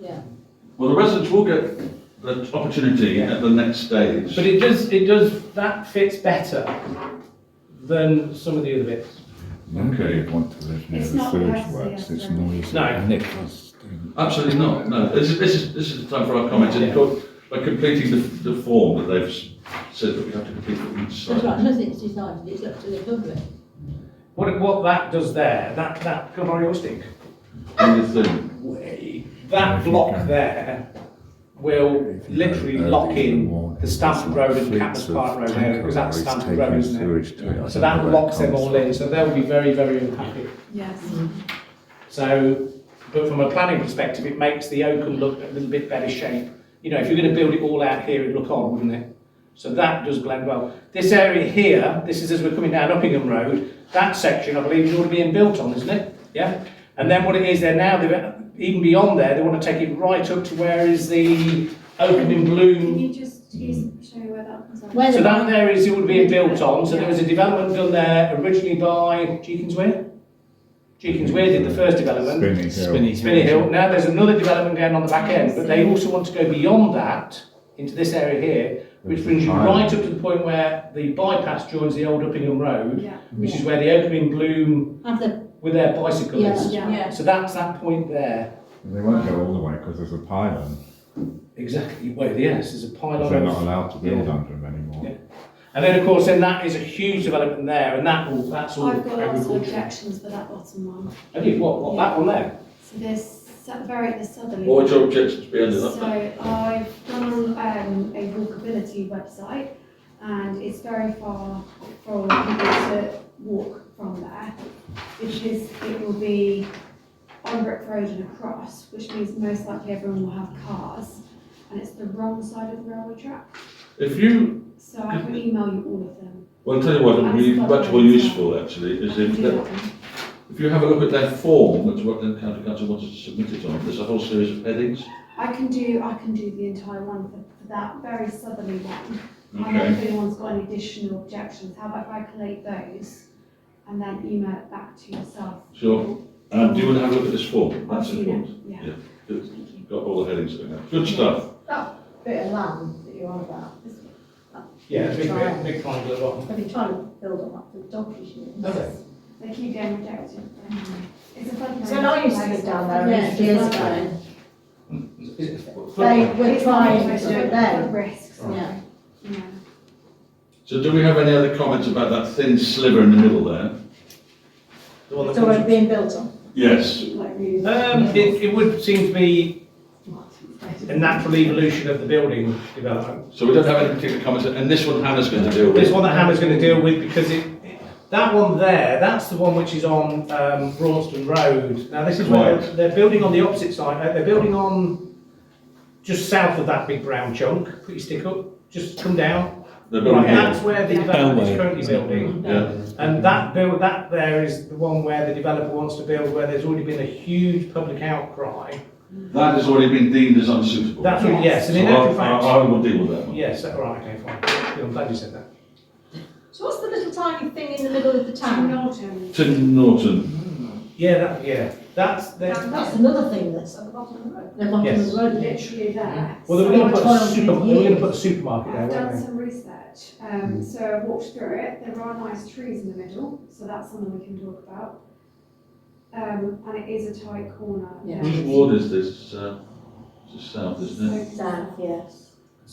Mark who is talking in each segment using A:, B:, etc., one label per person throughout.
A: Yeah.
B: Well, the residents will get the opportunity at the next stage.
C: But it does, it does, that fits better than some of the other bits.
D: Nobody would want to live near
E: It's
D: the
E: not
D: sewage
E: grassy,
D: works,
E: I
D: it's
E: think.
D: noisy.
C: No.
D: and it's-
B: Absolutely not, no, this is, this is, this is the time for our comments, and of course, by completing the, the form that they've s- said that we have to complete for each
A: That's right,
B: site.
A: nothing's decided, it's up to the public.
C: What, what that does there, that, that, can I borrow your stick?
B: And the thing,
C: Way. That block there will literally lock in the Stamford Road and Catmas Park Road area, because that's Stamford Road, isn't it? So that locks them all in, so they'll be very, very unhappy.
E: Yes.
C: So, but from a planning perspective, it makes the Oakham look a little bit better shape. You know, if you're going to build it all out here, it'd look odd, wouldn't it? So that does blend well. This area here, this is as we're coming down Uppingham Road, that section, I believe, is already being built on, isn't it? Yeah? And then what it is there now, they've- even beyond there, they want to take it right up to where is the Oakham in
E: Can
C: Bloom.
E: you just please show where that comes up?
A: Where
C: So
A: the
C: that there is all being built on, so there was a development done there originally by Jeekins Weir? Jeekins Weir did the first development.
D: Spinny Hill.
C: Spinney Hill. Now there's another development going on the back end, but they also want to go beyond that into this area here, which brings you right up to the point where the bypass joins the old Uppingham Road,
E: Yeah,
C: which is where the Oakham in Bloom
A: Have the,
C: with their bicyclists.
E: yeah.
A: yeah,
C: So that's that point there.
D: They won't go all the way because there's a pylon,
C: Exactly. Well, yes, there's a pile
D: 'cause they're not
C: of.
D: allowed to build
C: Yeah.
D: under them anymore.
C: Yeah. And then of course, then that is a huge development there, and that will that's all
E: I've got lots of
C: agriculture.
E: objections for that bottom one.
C: Have you what? What that one there?
E: So this, su- very, the southerly.
B: what would your objections be under
E: So
B: that?
E: I've gone on um, a walkability website and it's very far for people to walk from there because it will be on Brick Road and across, which means most likely everyone will have cars and it's the wrong side of the railway track.
B: If you,
E: So I
B: Mm-hmm.
E: can email you all of them.
B: well, I'll tell you what, it would be much more useful actually, is if, that- if you have a look at their form, that's what the county council wanted to submit it on, there's a whole series of headings.
E: I can do, I can do the entire one for, for that very southerly one. I don't know
B: Okay,
E: if anyone's got any additional objections, how about if I collate those and then email it back to yourself?
B: sure, and do you want to have a look at this form?
E: I'll
B: That's
E: see
B: important,
E: you. Yeah,
B: Yeah. Good.
E: thank you.
B: got all the headings in there, good stuff.
A: bit of land that you're on about,
C: Yeah, big big, big triangle at the bottom.
A: they've been trying to build on that, the doggish unit.
C: Okay.
E: They keep getting rejected. It's a floodplain.
F: So I used to live down there.
A: Yeah, years ago,
C: Is it-
A: they were
E: It's not
A: trying
E: the
A: to
E: most
A: do it then,
E: risks,
A: yeah.
E: yeah.
B: So do we have any other comments about that thin sliver in the middle there?
C: The one that
F: It's
C: comes-
F: already being built on.
B: Yes.
E: Like really-
C: Um, it, it would seem to be a natural evolution of the building development.
B: So we don't have any particular comments, and this one Hannah's going to deal
C: This
B: with.
C: one that Hannah's going to deal with because it, that one there, that's the one which is on um, Braunston Road. Now this is where
B: Right.
C: they're building on the opposite side. uh, They're building on just south of that big brown chunk. Put your stick up. Just come down.
B: The
C: Right,
B: building here.
C: that's where the development is currently building.
B: Yeah,
C: And that build, that there is the one where the developer wants to build, where there's already been a huge public outcry.
B: that has already been deemed as unsuitable.
C: That's what, yes,
B: So
C: and in actual
B: I,
C: fact.
B: I I will deal with that one.
C: Yes, all right, okay, fine. Yeah, I'm glad you said that.
F: So what's the little tiny thing in the middle of the
E: Tim
F: town?
E: Norton.
B: Tim Norton,
C: Yeah, that, yeah, that's, the-
F: That's
E: That's
F: another thing that's,
E: It's at the bottom of the road.
A: They're on the
C: Yes.
A: road, isn't it?
E: Literally there.
C: well, they were
E: So
C: gonna put a
A: Twelve
C: super, they were gonna
A: years.
C: put a supermarket there,
E: I've done
C: weren't
E: some research,
B: Mm.
E: um, so I walked through it, there are nice trees in the middle, so that's something we can talk about. Um, and it is a tight corner.
A: Yeah.
B: whose ward is this? It's, uh, It's south, isn't it?
E: So-
A: South, yes.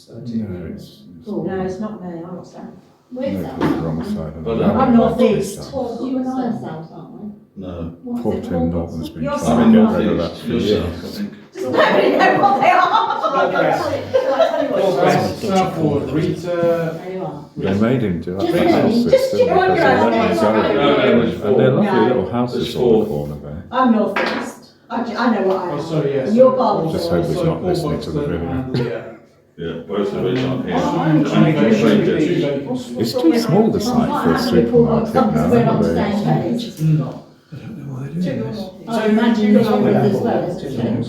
D: No, it's. it's-
A: Cool.
F: no, it's not me, I'm not saying.
A: Oh, Where's
D: No,
A: that?
D: it's the wrong side of the.
B: But, uh,
D: road,
A: I'm
D: not this
A: northeast.
D: side.
A: Well, you and I are south, aren't we?
B: No,
A: What's it
D: Poor Tim
A: called?
D: Norton's been
F: You're
D: trying
B: I'm in
D: to get rid of that
B: northeast,
D: for
B: you're
D: years.
B: south, I think.
F: Does nobody know what they are?
C: North West. North West.
A: There you are.
D: They made him do
A: Just
D: that
A: a
D: house
A: minute, just
D: system.
A: check on
D: because
A: your
D: of
A: own.
D: the
B: No,
D: zone.
B: no, it's
D: And they're
B: four.
D: lovely
A: No.
D: little houses
B: It's
D: on the
B: four.
D: corner there.
F: I'm northeast. I, ju- I know what
D: Oh,
F: I am.
A: And You're Barnsley.
D: Just hope he's not listening to the video.
B: uh, Yeah, both of which aren't here.
A: Oh,
B: And
C: they?
B: strangers.
D: It's too small the site for a supermarket now.
A: We're on the
D: but-
A: same page. I
C: So-
A: imagine you're on
C: Yeah.
A: as well, isn't it?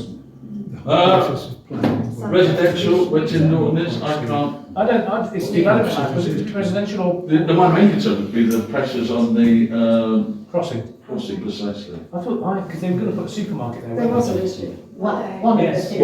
B: Uh, residential, where Tim Norton is, I can't,
C: I don't, I, it's development, land, because it's residential or
B: the, the my main concern would be the pressures on the, um,
C: crossing.
B: crossing precisely.
C: I thought, I, because they were gonna put a supermarket there,
A: There
C: weren't
A: was
C: they?
A: an issue, one, one of the
C: Yes.
A: things.